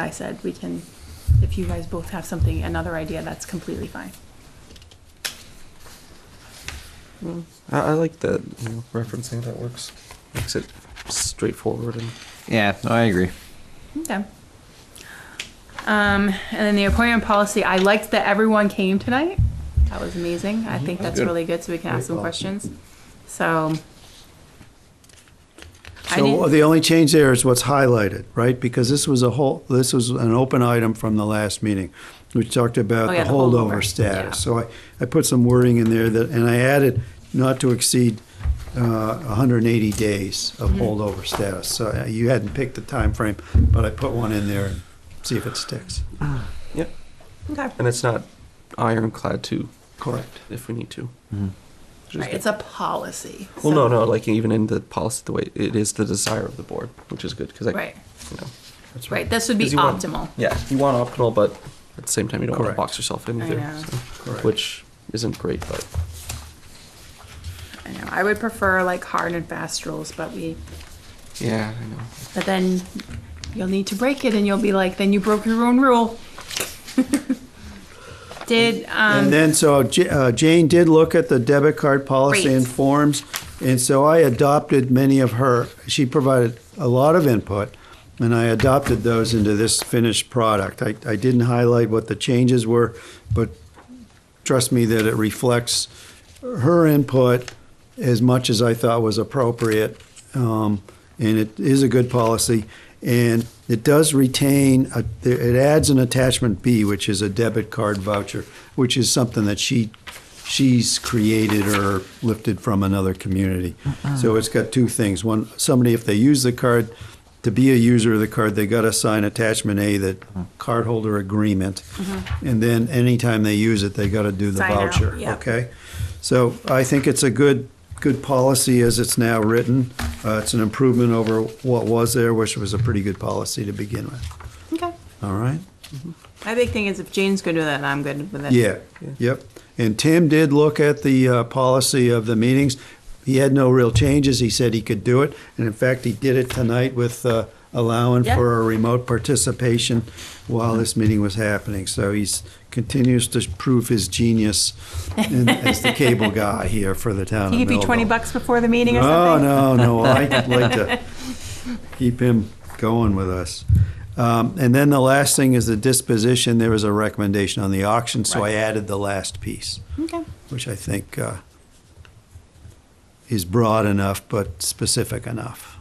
I said, we can, if you guys both have something, another idea, that's completely fine. I, I like that you know, referencing that works. Makes it straightforward and Yeah, no, I agree. Okay. Um, and then the appointment policy, I liked that everyone came tonight. That was amazing. I think Mm-hmm. that's Good. really good, so we can ask some questions. So. I So didn't- the only change there is what's highlighted, right? Because this was a whole, this was an open item from the last meeting, which talked about Oh, yeah, the the holdover, holdover yeah. status. So I, I put some wording in there that, and I added not to exceed uh, 180 days of Mm-hmm. holdover status. So uh, you hadn't picked the time frame, but I put one in there and see if it sticks. yeah, Okay. and it's not ironclad too Correct. if we need to. Which is Right, good. It's a policy. well, so- no, no. Like even in the policy, the way it is the desire of the board, which is good because I, Right, you know, That's right. This would 'cause be you want- optimal. yeah, you want optimal, but at the same time, you don't want to Correct. box yourself in I either, know. so- Correct. which isn't great. But I know. I would prefer like hard and fast rules, but we, yeah, I know. but then you'll need to break it and you'll be like, then you broke your own rule. Did, um. And then, so J- uh, Jane did look at the debit card policy Great. and forms, and so I adopted many of her, she provided a lot of input, and I adopted those into this finished product. I, I didn't highlight what the changes were, but trust me that it reflects her input as much as I thought was appropriate. Um, and it is a good policy. And it does retain, a, it adds an attachment B, which is a debit card voucher, which is something that she she's created or lifted from another community. Uh-uh. So it's got two things. One, somebody, if they use the card, to be a user of the card, they got to sign attachment A, that Mm-hmm. cardholder agreement. And then anytime they use it, they got to do the Sign out, voucher, yep. okay? So I think it's a good, good policy as it's now written. Uh, It's an improvement over what was there, which was a pretty good policy to begin with, Okay. all right? My big thing is if Jane's gonna do that, I'm good with it. Yeah, yep. And Tim did look at the uh, policy of the meetings. He had no real changes. He said he could do it. And in fact, he did it tonight with uh, allowing Yeah. for a remote participation while this meeting was happening. So he's continues to prove his genius in- as the cable guy here for the town of He could be Millville. twenty bucks before the meeting or No, something. no, no. I like to keep him going with us. Um, and then the last thing is the disposition. There was a recommendation on the auction, so I added the last piece, Okay. which I think uh, is broad enough but specific enough.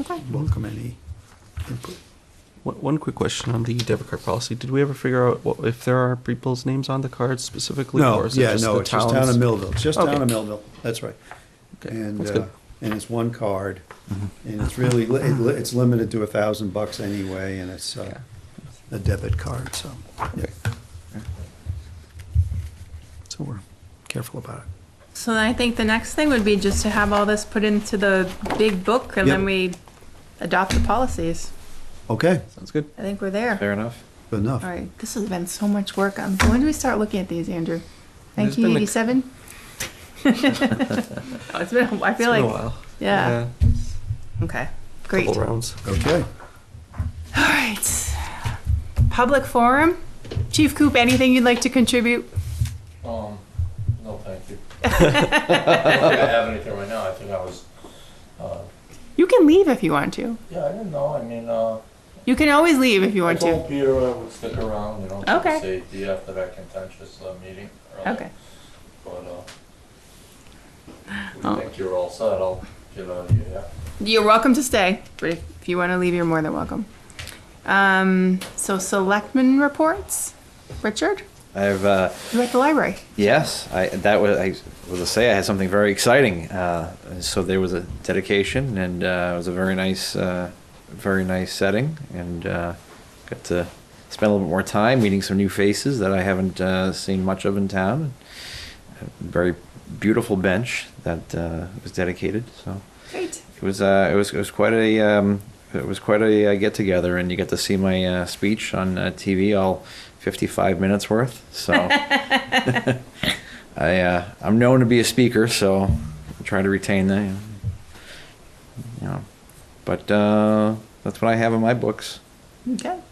Okay. Welcome any input. One, one quick question on the debit card policy: Did we ever figure out what, if there are people's names on the cards specifically? No, or is it yeah, just no, the it's just towns? town of Millville. It's just Okay. town of Millville. That's right. Okay, And, that's uh, good. Mm-hmm. and it's one card, and it's really, li- it li- it's limited to a thousand bucks anyway, and it's uh, a debit card, so. yeah. So we're careful about it. So then I think the next thing would be just to have all this put into the big book and then Yep. we adopt the policies. Okay, Sounds good. I think we're there. Fair enough. good enough. All right, this has been so much work. Um, when do we start looking at these, Andrew? There's been a- Nineteen eighty-seven? It's been, a- I feel It's been a like, while. yeah, okay, great. Couple rounds. Okay. All right. Public forum. Chief Coop, anything you'd like to contribute? Um, no, thank you. I don't think I have anything right now, I think I was, uh, You can leave if you want to. yeah, I didn't know, I mean, uh, You can always leave if you I want to. told Peter I would stick around, you know, for Okay. the safety after that contentious, uh, meeting. earlier, Okay. But, uh, Oh. we think you're all set, I'll get out of here, yeah? You're welcome to stay, but if, if you want to leave, you're more than welcome. Um, so selectmen reports. Richard, I've uh, you're at the library. yes, I that was I was to say I had something very exciting. Uh, and so there was a dedication, and uh, it was a very nice, uh, very nice setting, and uh, got to spend a little bit more time meeting some new faces that I haven't uh, seen much of in town. A very beautiful bench that uh, was dedicated. So. Great. It was uh, it was it was quite a um, it was quite a uh, get together, and you get to see my uh, speech on uh, TV, all fifty five minutes worth. So I uh, I'm known to be a speaker, so I try to retain that. You know, but uh, that's what I have in my books. Okay.